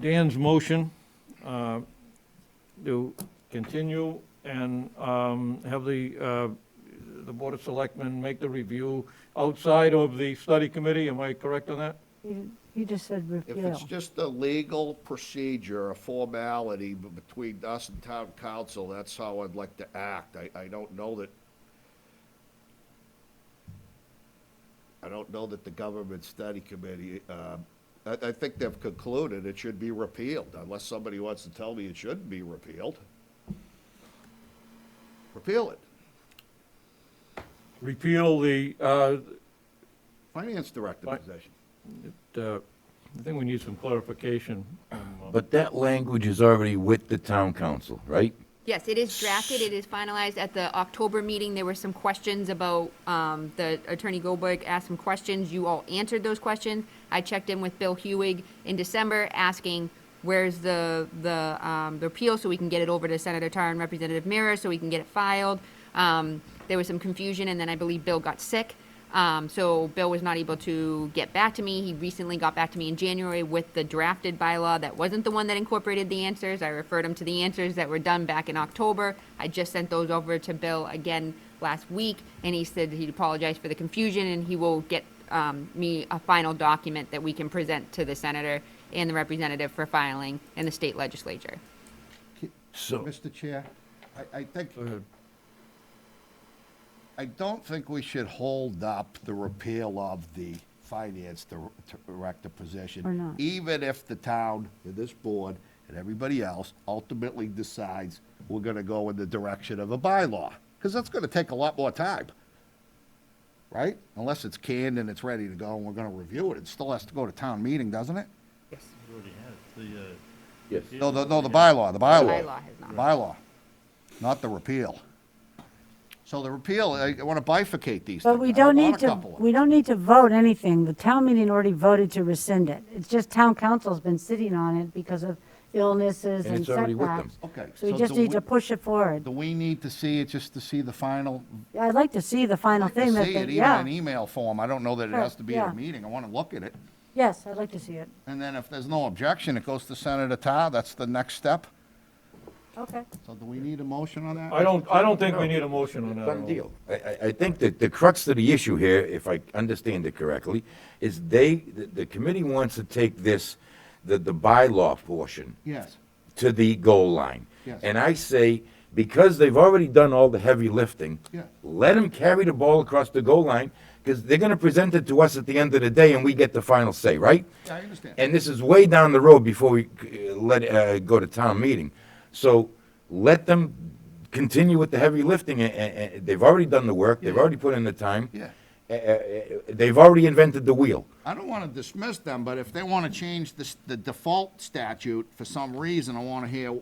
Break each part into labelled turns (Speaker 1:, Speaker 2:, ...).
Speaker 1: Dan's motion uh, to continue and um, have the, uh, the Board of Selectmen make the review outside of the study committee, am I correct on that?
Speaker 2: You you just said
Speaker 3: If it's
Speaker 2: repeal.
Speaker 3: just a legal procedure, a formality b- between us and town council, that's how I'd like to act. I, I don't know that, I don't know that the government study committee, uh, I, I think they've concluded it should be repealed, unless somebody wants to tell me it shouldn't be repealed. Repeal it.
Speaker 1: Repeal the, uh,
Speaker 3: Finance director
Speaker 1: Fi-
Speaker 3: position.
Speaker 1: uh, I think we need some clarification.
Speaker 4: But that language is already with the town council, right?
Speaker 5: Yes, it is drafted, it is finalized. At the October meeting, there were some questions about, um, the Attorney Goldberg asked some questions. You all answered those questions. I checked in with Bill Hewig in December, asking, where's the, the, um, the appeal, so we can get it over to Senator Tar and Representative Mira, so we can get it filed. Um, there was some confusion, and then I believe Bill got sick. Um, so Bill was not able to get back to me. He recently got back to me in January with the drafted bylaw that wasn't the one that incorporated the answers. I referred him to the answers that were done back in October. I just sent those over to Bill again last week, and he said he'd apologize for the confusion and he will get um, me a final document that we can present to the senator and the representative for filing in the state legislature.
Speaker 4: So,
Speaker 3: Mr. Chair, I, I think,
Speaker 1: ahead.
Speaker 3: I don't think we should hold up the repeal of the finance dir- director position.
Speaker 2: Or not.
Speaker 3: Even if the town, and this board, and everybody else ultimately decides we're gonna go in the direction of a bylaw, because that's gonna take a lot more time, right? Unless it's canned and it's ready to go and we're gonna review it, it still has to go to town meeting, doesn't it?
Speaker 5: Yes.
Speaker 4: yes,
Speaker 3: No, the, no, the bylaw, the bylaw.
Speaker 5: bylaw has not.
Speaker 3: Bylaw, not the repeal. So the repeal, I want to bifurcate these things.
Speaker 2: But we
Speaker 3: I
Speaker 2: don't
Speaker 3: want
Speaker 2: need
Speaker 3: a
Speaker 2: to,
Speaker 3: couple of
Speaker 2: we don't need to vote anything. The town meeting already voted to rescind it. It's just town council's been sitting on it because of illnesses
Speaker 4: And
Speaker 2: and
Speaker 4: it's already with them.
Speaker 2: setbacks.
Speaker 3: Okay,
Speaker 2: So we
Speaker 3: so
Speaker 2: just
Speaker 3: do
Speaker 2: need to
Speaker 3: we-
Speaker 2: push it forward.
Speaker 3: Do we need to see it just to see the final,
Speaker 2: Yeah, I'd like to see the final
Speaker 3: to
Speaker 2: thing that,
Speaker 3: see
Speaker 2: they-
Speaker 3: it even in
Speaker 2: yeah.
Speaker 3: email form? I don't know that it
Speaker 2: Sure,
Speaker 3: has to be at
Speaker 2: yeah.
Speaker 3: a meeting. I want to look at it.
Speaker 2: Yes, I'd like to see it.
Speaker 3: And then if there's no objection, it goes to Senator Tar. That's the next step.
Speaker 2: Okay.
Speaker 3: So do we need a motion on that?
Speaker 1: I don't, I don't think we need a motion on that. at
Speaker 4: done
Speaker 1: all.
Speaker 4: deal. I, I, I think that the crux of the issue here, if I understand it correctly, is they, the, the committee wants to take this, the, the bylaw portion
Speaker 3: Yes.
Speaker 4: to the goal line.
Speaker 3: Yes.
Speaker 4: And I say, because they've already done all the heavy lifting,
Speaker 3: Yeah.
Speaker 4: let them carry the ball across the goal line, because they're gonna present it to us at the end of the day, and we get the final say, right?
Speaker 3: Yeah, I understand.
Speaker 4: And this is way down the road before we uh, let, uh, go to town meeting. So let them continue with the heavy lifting, and, they've already done the work, they've already put in the time.
Speaker 3: Yeah.
Speaker 4: Uh, uh, uh, They've already invented the wheel.
Speaker 3: I don't want to dismiss them, but if they want to change this, the default statute for some reason, I want to hear,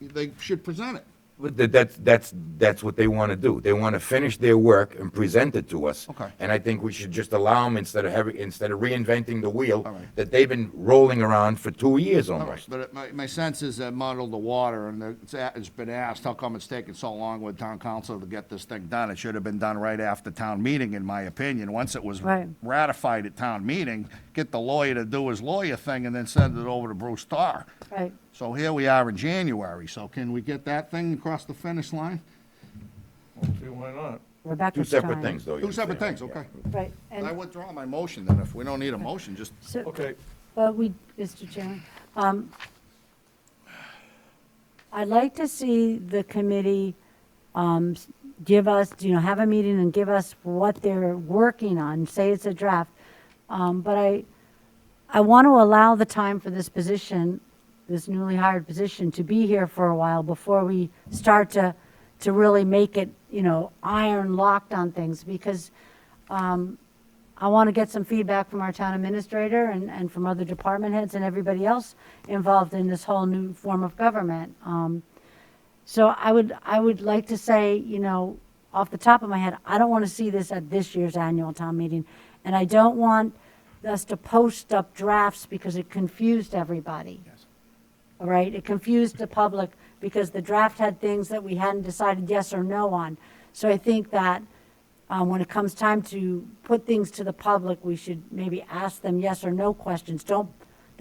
Speaker 3: they should present it.
Speaker 4: But tha- that's, that's, that's what they want to do. They want to finish their work and present it to us.
Speaker 3: Okay.
Speaker 4: And I think we should just allow them instead of having, instead of reinventing the wheel
Speaker 3: All right.
Speaker 4: that they've been rolling around for two years
Speaker 3: All right,
Speaker 4: almost.
Speaker 3: But it- my, my sense is that muddled the water, and it's, a- it's been asked, how come it's taking so long with town council to get this thing done? It should have been done right after town meeting, in my opinion. Once it was
Speaker 2: Right.
Speaker 3: ratified at town meeting, get the lawyer to do his lawyer thing and then send it over to Bruce Starr.
Speaker 2: Right.
Speaker 3: So here we are in January, so can we get that thing across the finish line?
Speaker 1: Let's See, why not?
Speaker 2: Rebecca
Speaker 4: Two
Speaker 2: Stein.
Speaker 4: separate things, though. you
Speaker 3: Two separate
Speaker 4: understand.
Speaker 3: things, okay.
Speaker 2: Right.
Speaker 3: I
Speaker 2: And
Speaker 3: withdraw my motion then, if we don't need a motion, just,
Speaker 2: so,
Speaker 1: Okay,
Speaker 2: but we, Mr. Chairman, um, I'd like to see the committee, um, s- give us, you know, have a meeting and give us what they're working on, say it's a draft. Um, but I, I want to allow the time for this position, this newly hired position, to be here for a while before we start to, to really make it, you know, iron locked on things, because um, I want to get some feedback from our town administrator and, and from other department heads and everybody else involved in this whole new form of government. Um, so I would, I would like to say, you know, off the top of my head, I don't want to see this at this year's annual town meeting. And I don't want us to post up drafts because it confused everybody. All right, it confused the public because the draft had things that we hadn't decided yes or no on. So I think that uh, when it comes time to put things to the public, we should maybe ask them yes or no questions. Don't